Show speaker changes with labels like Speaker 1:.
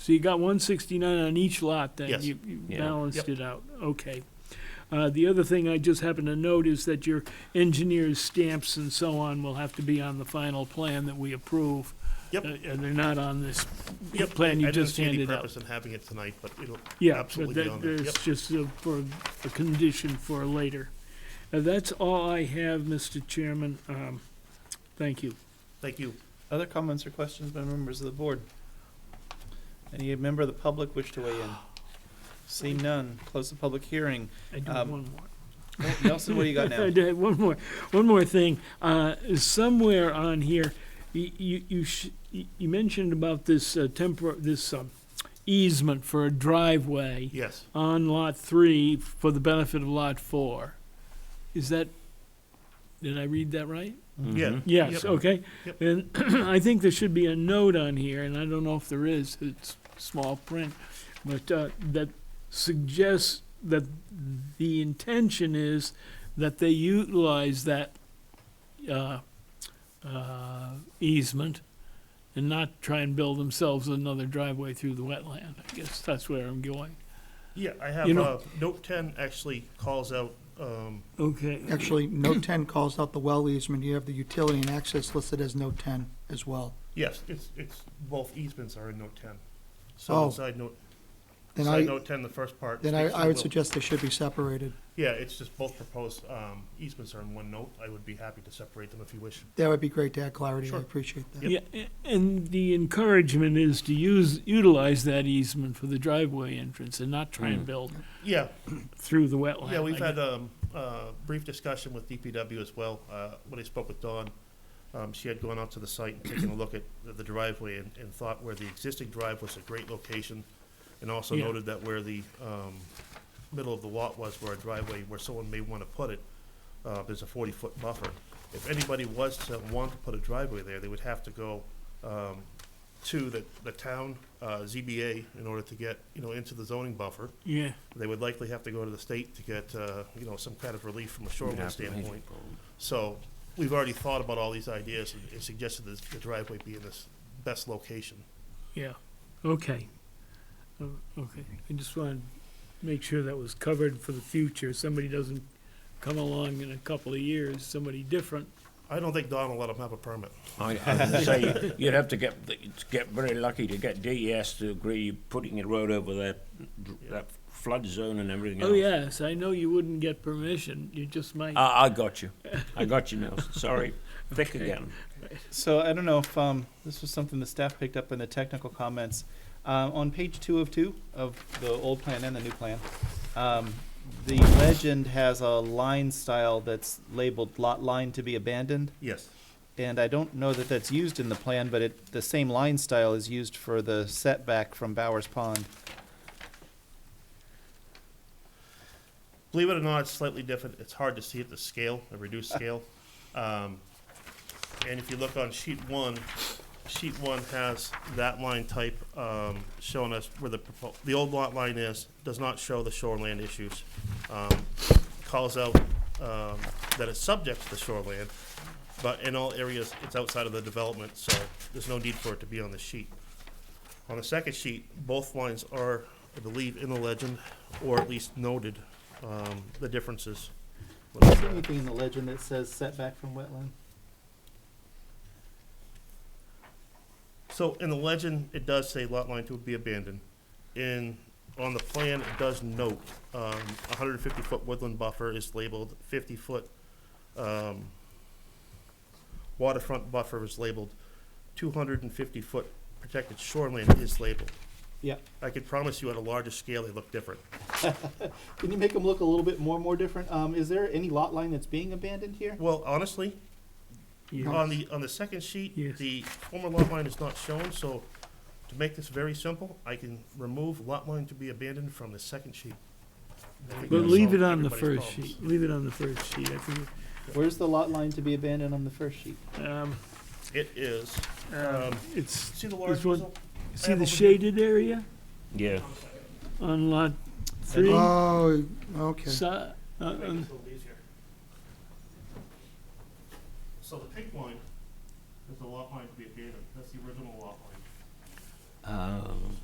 Speaker 1: So you got one sixty-nine on each lot, then?
Speaker 2: Yes.
Speaker 1: You you
Speaker 3: Yeah.
Speaker 1: balanced
Speaker 2: Yep.
Speaker 1: it out, okay. Uh, the other thing I just happened to note is that your engineer's stamps and so on will have to be on the final plan that we approve.
Speaker 2: Yep.
Speaker 1: Uh, And they're not on this
Speaker 2: Yep,
Speaker 1: plan
Speaker 2: I
Speaker 1: you
Speaker 2: didn't
Speaker 1: just
Speaker 2: see any
Speaker 1: handed out.
Speaker 2: purpose in having it tonight, but it'll
Speaker 1: Yeah, but
Speaker 2: absolutely be on
Speaker 1: that,
Speaker 2: there. Yep.
Speaker 1: that's just a- for a condition for later. Uh, That's all I have, Mr. Chairman. Um, Thank you.
Speaker 2: Thank you.
Speaker 4: Other comments or questions by members of the board? Any member of the public wish to weigh in? Seeing none, close the public hearing.
Speaker 1: I do have
Speaker 4: Um,
Speaker 1: one more.
Speaker 4: Oh, Nelson, what do you got now?
Speaker 1: I do have one more, one more thing. Uh, somewhere on here, you you you, sh- you you mentioned about this uh, tempor- this um, easement for a driveway
Speaker 2: Yes,
Speaker 1: on lot three for the benefit of lot four. Is that? Did I read that right?
Speaker 2: yeah.
Speaker 1: Yes.
Speaker 2: Yep.
Speaker 1: Okay.
Speaker 2: Yep.
Speaker 1: And I think there should be a note on here, and I don't know if there is. It's small print, but uh, that suggests that the intention is that they utilize that uh, uh, easement and not try and build themselves another driveway through the wetland. I guess that's where I'm going.
Speaker 2: Yeah, I have,
Speaker 1: You know-
Speaker 2: uh, note ten actually calls out, um,
Speaker 1: Okay.
Speaker 5: Actually, note ten calls out the well easement, you have the utility and access listed as note ten as well.
Speaker 2: yes, it's, it's, both easements are in note ten.
Speaker 5: Oh.
Speaker 2: So inside note,
Speaker 5: Then
Speaker 2: side
Speaker 5: I,
Speaker 2: note ten, the first part.
Speaker 5: then I,
Speaker 2: speaks to
Speaker 5: I would
Speaker 2: will.
Speaker 5: suggest they should be separated.
Speaker 2: Yeah, it's just both proposed, um, easements are in one note. I would be happy to separate them if you wish.
Speaker 5: That would be great to add clarity, I
Speaker 2: Sure.
Speaker 5: appreciate that.
Speaker 1: Yeah, a- and the encouragement is to use, utilize that easement for the driveway entrance and not try and
Speaker 3: Mm.
Speaker 1: build
Speaker 2: Yeah,
Speaker 1: through the wetland.
Speaker 2: Yeah, we've
Speaker 1: I
Speaker 2: had
Speaker 1: guess.
Speaker 2: um, a brief discussion with DPW as well. Uh, When I spoke with Dawn, um, she had gone out to the site and taken a look at the- the driveway and and thought where the existing drive was a great location, and also
Speaker 1: Yeah.
Speaker 2: noted that where the um, middle of the lot was, where a driveway, where someone may want to put it, uh, there's a 40-foot buffer. If anybody was to want to put a driveway there, they would have to go um, to the the town uh, ZBA in order to get, you know, into the zoning buffer
Speaker 1: Yeah,
Speaker 2: they would likely have to go to the state to get, uh, you know, some kind of relief from a
Speaker 3: Mm-hmm.
Speaker 2: shoreline standpoint. So we've already thought about all these ideas and- and suggested this- the driveway be in this best location.
Speaker 1: yeah, okay. Oh, Okay, I just wanted to make sure that was covered for the future. Somebody doesn't come along in a couple of years, somebody different.
Speaker 2: I don't think Don will let them have a permit.
Speaker 3: I, I was gonna say, you'd have to get, the- it's get very lucky to get DES to agree putting a road over that, that flood zone and everything else.
Speaker 1: Oh, yes, I know you wouldn't get permission, you just might.
Speaker 3: I, I got you. I got you, Nelson. Sorry. Thick again.
Speaker 4: So I don't know if um, this was something the staff picked up in the technical comments. Uh, on page two of two of the old plan and the new plan, um, the legend has a line style that's labeled lot line to be abandoned.
Speaker 2: Yes.
Speaker 4: And I don't know that that's used in the plan, but it, the same line style is used for the setback from Bowers Pond.
Speaker 2: Believe it or not, it's slightly different. It's hard to see at the scale, a reduced scale. Um, And if you look on sheet one, sheet one has that line type um, showing us where the, propo- the old lot line is, does not show the shoreland issues. Um, Calls out um, that it's subject to the shoreland, but in all areas, it's outside of the development, so there's no need for it to be on the sheet. On the second sheet, both lines are, I believe, in the legend, or at least noted, um, the differences.
Speaker 4: Is there anything in the legend that says setback from wetland?
Speaker 2: So in the legend, it does say lot line two would be abandoned. In, on the plan, it does note, um, hundred and fifty foot woodland buffer is labeled fifty foot, um, waterfront buffer is labeled, two hundred and fifty foot protected shoreline is labeled.
Speaker 4: Yeah.
Speaker 2: I could promise you at a larger scale, they look different.
Speaker 4: Can you make them look a little bit more more different? Um, is there any lot line that's being abandoned here?
Speaker 2: Well, honestly,
Speaker 1: Yeah.
Speaker 2: On the, on the second sheet,
Speaker 1: Yes.
Speaker 2: the former lot line is not shown, so to make this very simple, I can remove lot line to be abandoned from the second sheet. I think
Speaker 1: But
Speaker 2: that'll
Speaker 1: leave
Speaker 2: solve
Speaker 1: it on the
Speaker 2: everybody's
Speaker 1: first
Speaker 2: problems.
Speaker 1: sheet, leave it on the first sheet, I think,
Speaker 4: Where's the lot line to be abandoned on the first sheet?
Speaker 1: um,
Speaker 2: It is,
Speaker 1: um,
Speaker 2: um,
Speaker 1: it's,
Speaker 2: see the large
Speaker 1: This one-
Speaker 2: easel?
Speaker 1: see
Speaker 2: over
Speaker 1: the
Speaker 2: here.
Speaker 1: shaded area
Speaker 3: Yeah.
Speaker 1: on lot three?
Speaker 5: Oh, okay.
Speaker 1: Si- uh,
Speaker 2: Make
Speaker 1: um,
Speaker 2: this a little easier. So the pink line is the lot line to be abandoned, that's the original lot line.
Speaker 3: Um,